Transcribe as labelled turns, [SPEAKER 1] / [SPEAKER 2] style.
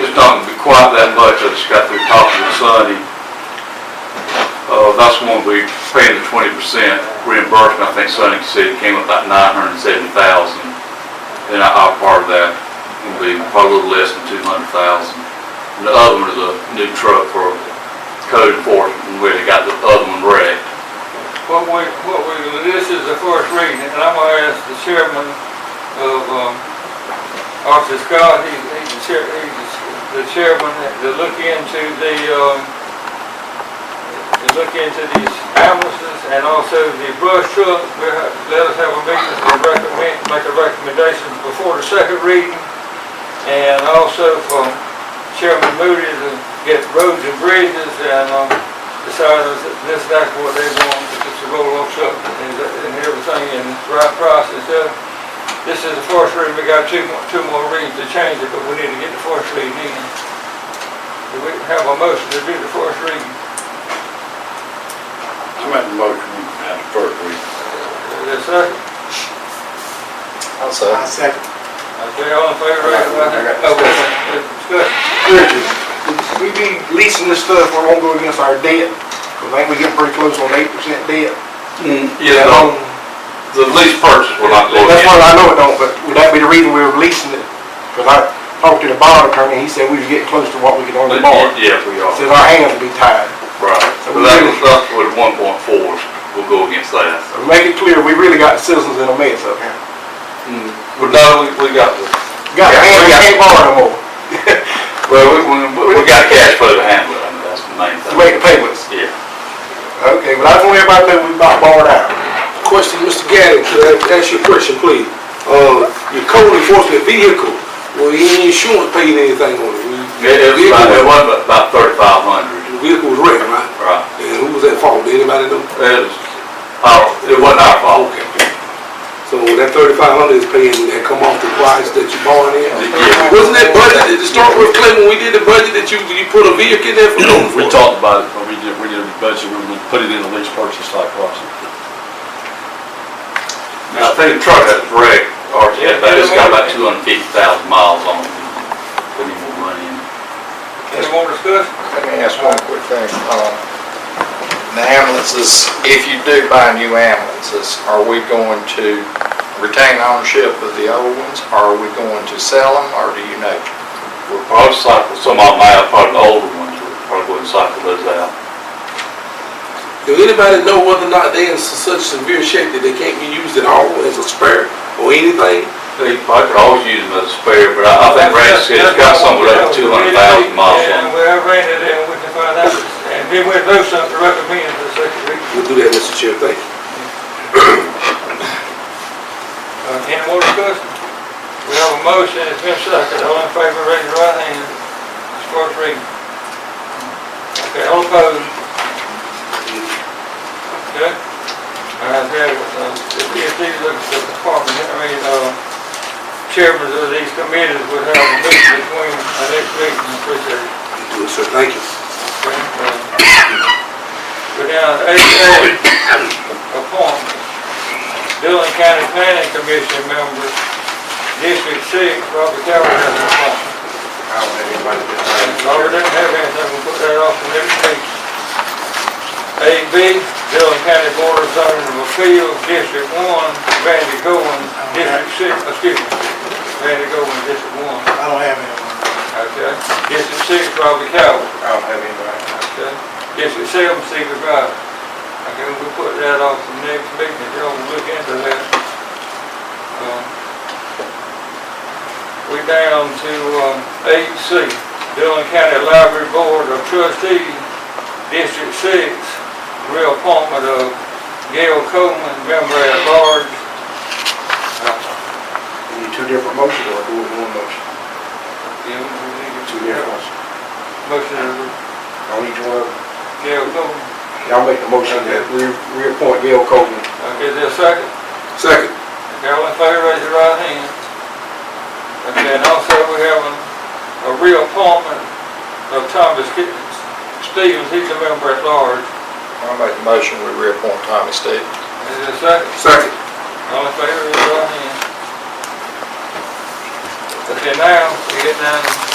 [SPEAKER 1] just don't be quite that much, I just got through talking to Sonny. Uh, that's when we paying the twenty percent reimbursement, I think Sonny said it came up about nine hundred and seventy thousand. Then I- our part of that will be probably a little less than two hundred thousand. And the other one is a new truck for code enforcement, where they got the other one wrecked.
[SPEAKER 2] What we, what we, this is the first reading, and I'm gonna ask the chairman of, um, Officer Scott, he's, he's the chair, he's the chairman, to look into the, um, to look into these ambulances and also the brush truck. We have- Let us have a meeting to recommend, make a recommendation before the second reading. And also for Chairman Moody to get roads and bridges and, um, decide if this, that's what they want, if it's a roll-off truck and, and everything in the right price and stuff. This is the first reading, we got two, more- two more readings to change it, but we need to get the first reading in. Do we have a motion to do the first reading?
[SPEAKER 3] I make the motion at the first reading.
[SPEAKER 2] Is there a second?
[SPEAKER 4] I'll second.
[SPEAKER 2] Okay, all in favor, raise your right hand. Okay, discussion.
[SPEAKER 5] Bridges, we be leasing this stuff, we're gonna go against our debt, 'cause I think we getting pretty close on eight percent debt. Um,
[SPEAKER 1] Yeah, no, the lease purchase will not go
[SPEAKER 5] Mm. That's
[SPEAKER 1] against.
[SPEAKER 5] what I know it don't, but would that be the reason we were leasing it? Because I talked to the bond attorney, he said we was getting close to what we could only borrow.
[SPEAKER 1] Yes, we are.
[SPEAKER 5] Says our hands would be tied.
[SPEAKER 1] Right, so that was up with one point fours, we'll go against that.
[SPEAKER 5] So Make it clear, we really got citizens in a mess up here.
[SPEAKER 1] Hmm. But no, we, we got, the-
[SPEAKER 5] Got
[SPEAKER 1] Yeah,
[SPEAKER 5] hands,
[SPEAKER 1] we
[SPEAKER 5] we
[SPEAKER 1] got-
[SPEAKER 5] can't borrow no more
[SPEAKER 1] well, we, we, we got cash flow to handle, it. I mean, that's the main
[SPEAKER 5] to
[SPEAKER 1] thing.
[SPEAKER 5] make the payments.
[SPEAKER 1] Yeah.
[SPEAKER 5] Okay, but I just want everybody to know we about borrowed out.
[SPEAKER 4] Question, Mr. Gaddis, could I ask you a question, please? Uh, your code enforcement vehicle, will any insurance paying anything on it?
[SPEAKER 1] It, it was about, it was about thirty-five hundred,
[SPEAKER 4] The vehicle was wrecked, right?
[SPEAKER 1] right?
[SPEAKER 4] And who was at fault? Did anybody know?
[SPEAKER 1] It was, our it wasn't our fault.
[SPEAKER 4] So that thirty-five hundred is paying, that come off the price that you borrowed in?
[SPEAKER 1] Yeah.
[SPEAKER 4] Wasn't that budgeted, to start with, Clay, when we did the budget, that you, you put a vehicle in there for code
[SPEAKER 6] We
[SPEAKER 4] enforcement?
[SPEAKER 6] talked about it, but we did, we did a budget, we would put it in a lease purchase like Washington.
[SPEAKER 1] I think the truck that's wrecked, or, yeah, but it's got about two hundred and fifty thousand miles on it. Put any more money in.
[SPEAKER 2] Any more discussion?
[SPEAKER 7] Let me ask one quick thing. Um, The ambulances, if you do buy new ambulances, are we going to retain ownership of the old ones? Are we going to sell them, or do you know?
[SPEAKER 1] We'll probably cycle some of them out, probably the older ones, we'll probably go and cycle those out.
[SPEAKER 4] Do anybody know whether or not they in such severe shape that they can't be used at all as a spare or anything?
[SPEAKER 1] They probably could always use them as a spare, but I I think Randy said it's got something like two hundred thousand miles on
[SPEAKER 2] Yeah,
[SPEAKER 1] it.
[SPEAKER 2] we have ran it in, we can find out, and then we'll do something to recommend the second reading.
[SPEAKER 4] We'll do that, Mr. Chair, thank you.
[SPEAKER 2] Uh, Any more discussion? We have a motion, it's been seconded, all in favor, raise your right hand, it's first reading. Okay, all opposed? Okay? All right, there, uh, the PSD looks at the department, I mean, uh, chairmen of these committees would have a meeting between our next meeting and appreciate it.
[SPEAKER 4] Do it, sir, thank you.
[SPEAKER 2] Go down to eight A, appointments. Dillon County Planning Commission member, District Six, Robert Calvert has an appointment.
[SPEAKER 5] I don't have anybody to-
[SPEAKER 2] Robert doesn't have anything, we'll put that off to next week. A B, Dillon County Board of Zoning of Appeals, District One, Randy Goins, District Six, excuse me, Randy Goins, District One,
[SPEAKER 5] I don't have anyone.
[SPEAKER 2] okay? District Six, Robert Calvert.
[SPEAKER 5] I don't have anybody.
[SPEAKER 2] Okay, yes, we sell them secret drive. Okay, we'll put that off the next meeting, if y'all will look into that. Um, We down to, um, eight C, Dillon County Library Board of Trustees, District Six, reappointment of Gail Coleman, member at large. Uh,
[SPEAKER 5] We need two different motions or do we do one motion?
[SPEAKER 2] Yeah, we need to-
[SPEAKER 5] Two different ones.
[SPEAKER 2] Motion of
[SPEAKER 5] On each one, of them.
[SPEAKER 2] Gail Coleman,
[SPEAKER 5] y'all make the motion that we reappoint Gail Coleman.
[SPEAKER 2] okay, is there a second?
[SPEAKER 4] Second.
[SPEAKER 2] All in favor, raise your right hand. Okay, and also we have a, a reappointment of Thomas Ki- Stevens, he's a member at large.
[SPEAKER 7] I make the motion, we reappoint Tommy Stevens.
[SPEAKER 2] Is there a second?
[SPEAKER 4] Second.
[SPEAKER 2] All in favor, raise your right hand. Okay, now we get down